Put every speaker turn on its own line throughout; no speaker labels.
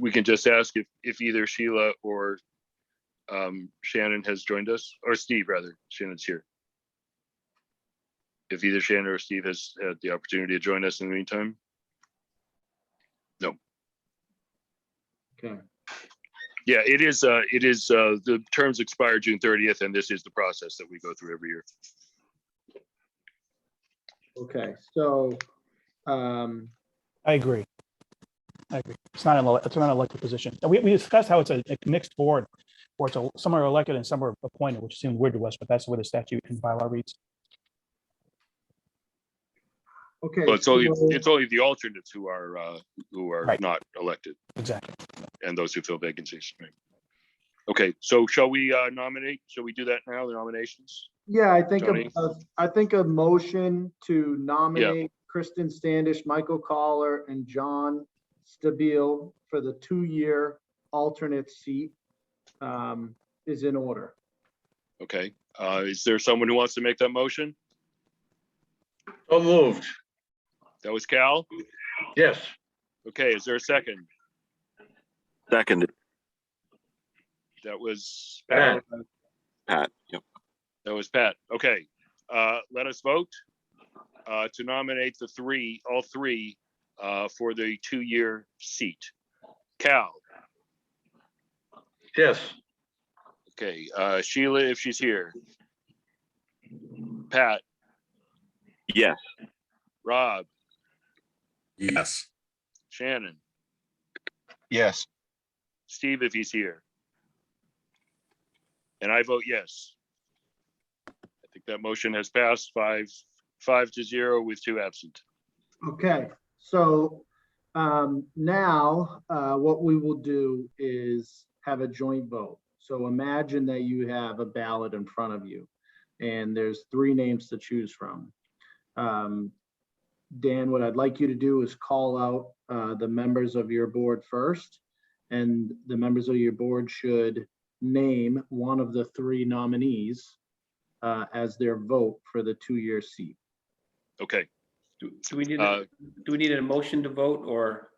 we can just ask if, if either Sheila or um, Shannon has joined us, or Steve rather, Shannon's here. If either Shannon or Steve has had the opportunity to join us in the meantime.
Okay,
Yeah, it is, uh, it is, uh, the terms expire June thirtieth, and this is the process that we go through every year.
okay, so, um,
I agree. I agree. It's not an, ele- it's not an elected position. And We, we discussed how it's a a mixed board, or it's a, some are elected and some are appointed, which seemed weird to us, but that's the way the statute and bylaw reads.
okay.
But it's only,
so-
it's only the alternates who are, uh, who are
Right.
not elected
Exactly.
and those who fill vacancies. Right. Okay, so shall we uh, nominate? Shall we do that now, the nominations?
Yeah, I think,
Tony?
a- a- I think a motion to nominate Kristen Standish, Michael Collar, and John Stabile for the two-year alternate seat um, is in order.
Okay, uh, is there someone who wants to make that motion?
So moved,
That was Cal.
yes.
Okay, is there a second?
Seconded,
That was,
Pat.
Pat. Yep.
that was Pat. Okay, uh, let us vote uh, to nominate the three, all three, uh, for the two-year seat. Cal,
Yes,
okay, uh, Sheila, if she's here. Pat,
Yes.
Rob,
Yes.
Shannon,
Yes,
Steve, if he's here. And I vote yes. I think that motion has passed five, five to zero with two absent.
Okay, so um, now uh, what we will do is have a joint vote. So imagine that you have a ballot in front of you and there's three names to choose from. Um, Dan, what I'd like you to do is call out uh, the members of your board first. And the members of your board should name one of the three nominees uh, as their vote for the two-year seat.
Okay,
Do do we need,
Uh,
a- do we need a motion to vote or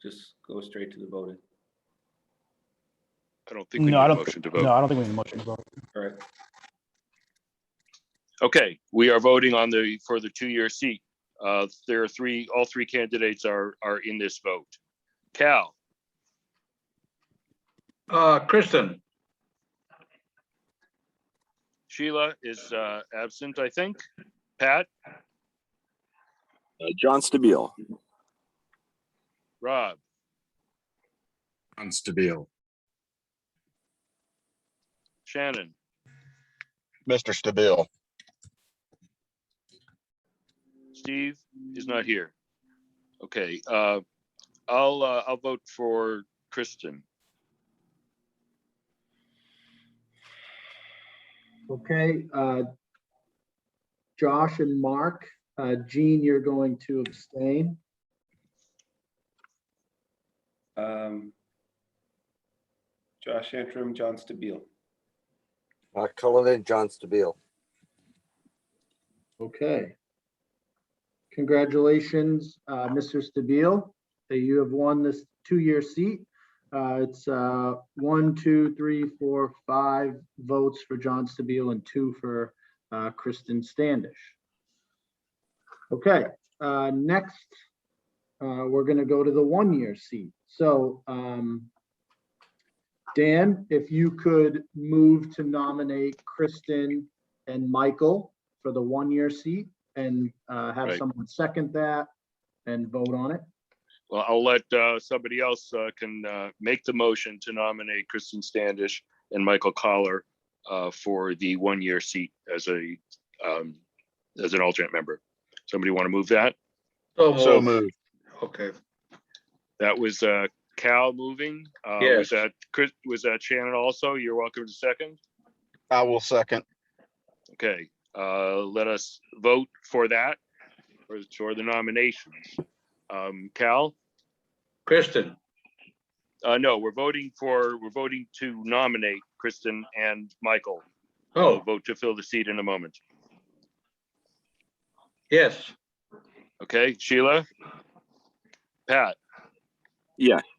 just go straight to the voting?
I don't think we need
No, I
a
don't,
motion to
no,
vote.
I don't think we need a motion to vote.
All right,
Okay, we are voting on the, for the two-year seat. Uh, There are three, all three candidates are, are in this vote. Cal,
uh, Kristen,
Sheila is uh, absent, I think. Pat,
Uh, John Stabile.
Rob,
John Stabile.
Shannon,
Mr. Stabile.
Steve is not here. Okay, uh, I'll, uh, I'll vote for Kristen.
Okay, uh, Josh and Mark, uh, Gene, you're going to abstain.
um, Josh Antrim, John Stabile.
Mark Cullinan, John Stabile.
Okay. Congratulations, uh, Mr. Stabile, that you have won this two-year seat. Uh, It's uh, one, two, three, four, five votes for John Stabile and two for uh, Kristen Standish. Okay, uh, next, uh, we're going to go to the one-year seat. So um, Dan, if you could move to nominate Kristen and Michael for the one-year seat and uh, have
Right.
someone second that and vote on it.
Well, I'll let uh, somebody else uh, can uh, make the motion to nominate Kristen Standish and Michael Collar uh, for the one-year seat as a, um, as an alternate member. Somebody want to move that?
so
So
moved,
moved.
okay.
That was uh, Cal moving. Uh, Was
Yes.
that, Chris- was that Shannon also? You're welcome to second.
I will second.
Okay, uh, let us vote for that, for- for the nominations. Um, Cal?
Kristen,
Uh, no, we're voting for, we're voting to nominate Kristen and Michael. We'll
oh,
Vote to fill the seat in a moment.
yes,
Okay, Sheila? Pat?
Yes.